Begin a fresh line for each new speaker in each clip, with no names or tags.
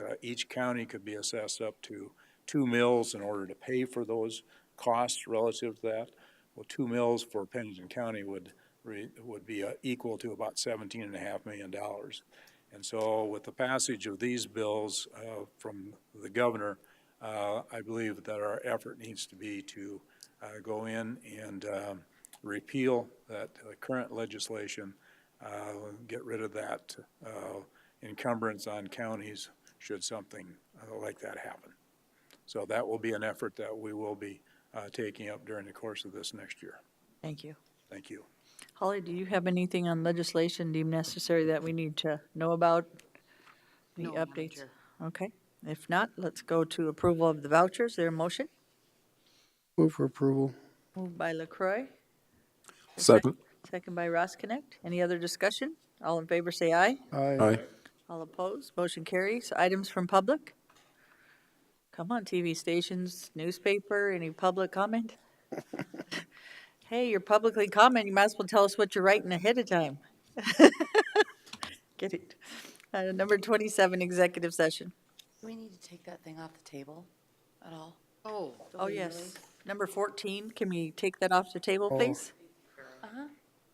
uh, each county could be assessed up to two mills in order to pay for those costs relative to that. Well, two mills for Pennington County would, re- would be uh, equal to about seventeen and a half million dollars. And so with the passage of these bills uh, from the governor, uh, I believe that our effort needs to be to uh, go in and um, repeal that uh, current legislation, uh, get rid of that uh, encumbrance on counties should something uh, like that happen. So that will be an effort that we will be uh, taking up during the course of this next year.
Thank you.
Thank you.
Holly, do you have anything on legislation deemed necessary that we need to know about? The
No, Madam
updates?
Chair.
Okay, if not, let's go to approval of the vouchers. Their motion,
Move for approval.
moved by LaCroy,
Second.
second by Ross Connect. Any other discussion? All in favor, say aye.
Aye.
Aye.
All opposed, motion carries. Items from public? Come on, TV stations, newspaper, any public comment? Hey, you're publicly commenting, you might as well tell us what you're writing ahead of time. Get it. Uh, Number 27, executive session.
Do we need to take that thing off the table at all? Oh.
Oh, yes. Number 14, can we take that off the table, please? Uh-huh.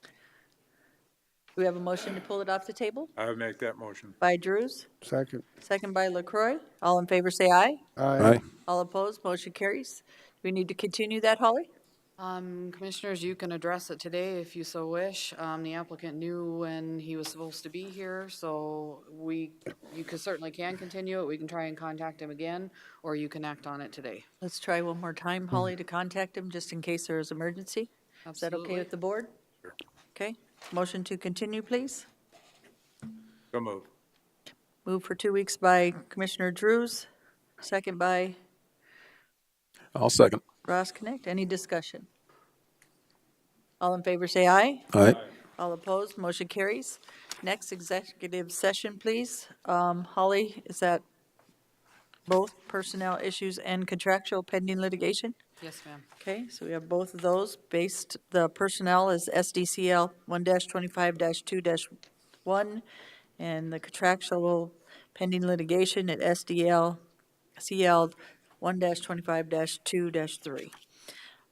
Do we have a motion to pull it off the table?
I would make that motion.
By Drews,
Second.
second by LaCroy. All in favor, say aye.
Aye.
All opposed, motion carries. Do we need to continue that, Holly?
Um, commissioners, you can address it today if you so wish. Um, the applicant knew when he was supposed to be here, so we, you can certainly can continue it. We can try and contact him again, or you can act on it today.
Let's try one more time, Holly, to contact him, just in case there is emergency. Is that okay
Absolutely.
with the board? Okay, motion to continue, please.
So move.
Move for two weeks by Commissioner Drews, second by
I'll second.
Ross Connect. Any discussion? All in favor, say aye.
Aye.
All opposed, motion carries. Next executive session, please. Um, Holly, is that both personnel issues and contractual pending litigation?
Yes, ma'am.
Okay, so we have both of those based, the personnel is SDCL one twenty-five two one, and the contractual pending litigation at SDL, CL one twenty-five two three.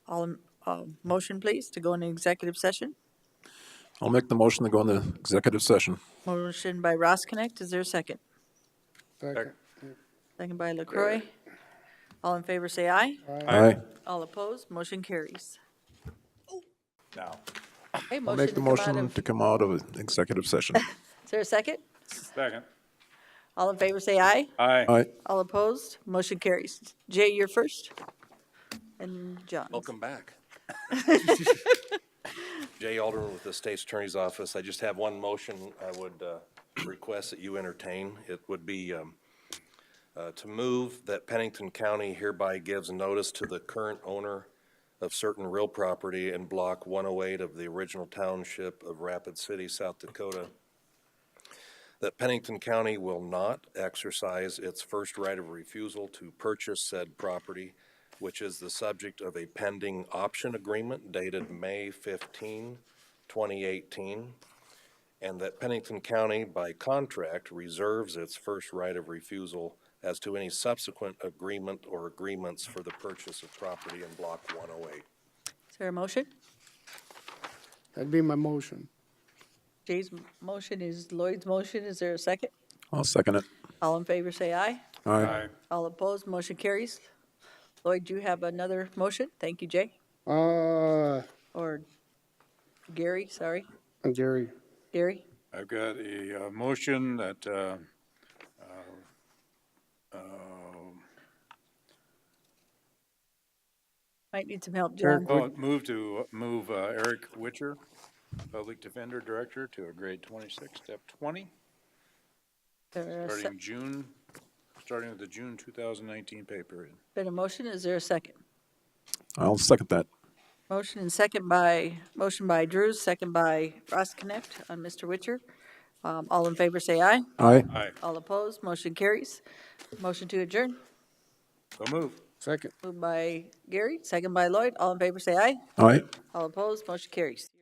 All, in- uh, motion please to go into executive session.
I'll make the motion to go into executive session.
Motion by Ross Connect, is there a second?
Second.
Second by LaCroy. All in favor, say aye.
Aye.
All opposed, motion carries.
Now,
Okay,
I'll
motion
make
to
the
come out
motion
of,
to come out of executive session.
is there a second?
second.
All in favor, say aye.
Aye.
Aye.
All opposed? Motion carries. Jay, you're first. And John.
Welcome back. Jay Alderman with the State's Attorney's Office. I just have one motion I would uh, request that you entertain. It would be um, uh, to move that Pennington County hereby gives notice to the current owner of certain real property in Block 108 of the original township of Rapid City, South Dakota, that Pennington County will not exercise its first right of refusal to purchase said property, which is the subject of a pending option agreement dated May 15, 2018, and that Pennington County, by contract, reserves its first right of refusal as to any subsequent agreement or agreements for the purchase of property in Block 108.
Is there a motion?
That'd be my motion.
Jay's m- motion is Lloyd's motion. Is there a second?
I'll second it.
All in favor, say aye.
Aye.
Aye.
All opposed? Motion carries. Lloyd, you have another motion? Thank you, Jay.
Uh,
Or Gary, sorry.
Gary,
Gary?
I've got a uh, motion that uh, uh, um,
Might need some help,
Eric,
John.
oh, move to, move uh, Eric Witcher, Public Defender Director, to a grade 26, step 20,
Is there a se-
starting June, starting with the June 2019 pay period.
Been a motion? Is there a second?
I'll second that.
Motion and second by, motion by Drews, second by Ross Connect on Mr. Witcher. Um, All in favor, say aye.
Aye.
Aye.
All opposed, motion carries. Motion to adjourn,
So move.
second.
moved by Gary, second by Lloyd. All in favor, say aye.
Aye.
All opposed, motion carries.